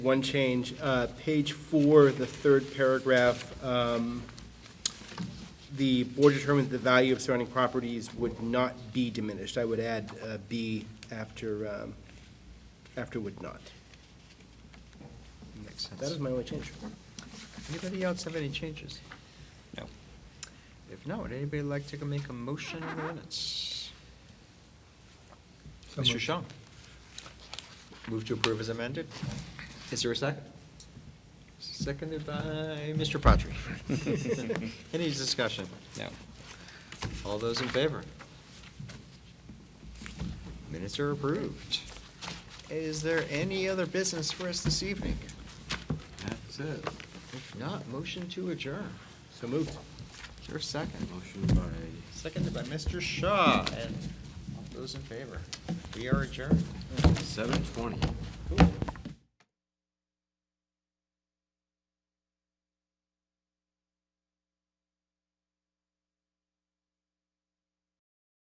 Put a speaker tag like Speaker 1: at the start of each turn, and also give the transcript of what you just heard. Speaker 1: One change, uh, page four, the third paragraph, um, the board determined the value of surrounding properties would not be diminished. I would add uh, "be" after, um, after "would not."
Speaker 2: Makes
Speaker 1: That is
Speaker 2: sense.
Speaker 1: my only change.
Speaker 2: Anybody else have any changes?
Speaker 3: No.
Speaker 2: If not, would anybody like to make a motion on the minutes? Mr. Shaw? Move to approve as amended. Is there a second? Seconded by Mr. Patry. Any discussion?
Speaker 3: No.
Speaker 2: All those in favor? Minutes are approved. Is there any other business for us this evening?
Speaker 4: That's it.
Speaker 2: If not, motion to adjourn.
Speaker 1: So moved.
Speaker 2: Is there a second?
Speaker 4: Motion by
Speaker 2: Seconded by Mr. Shaw, and all those in favor? We are adjourned.
Speaker 4: seven twenty.
Speaker 2: Cool.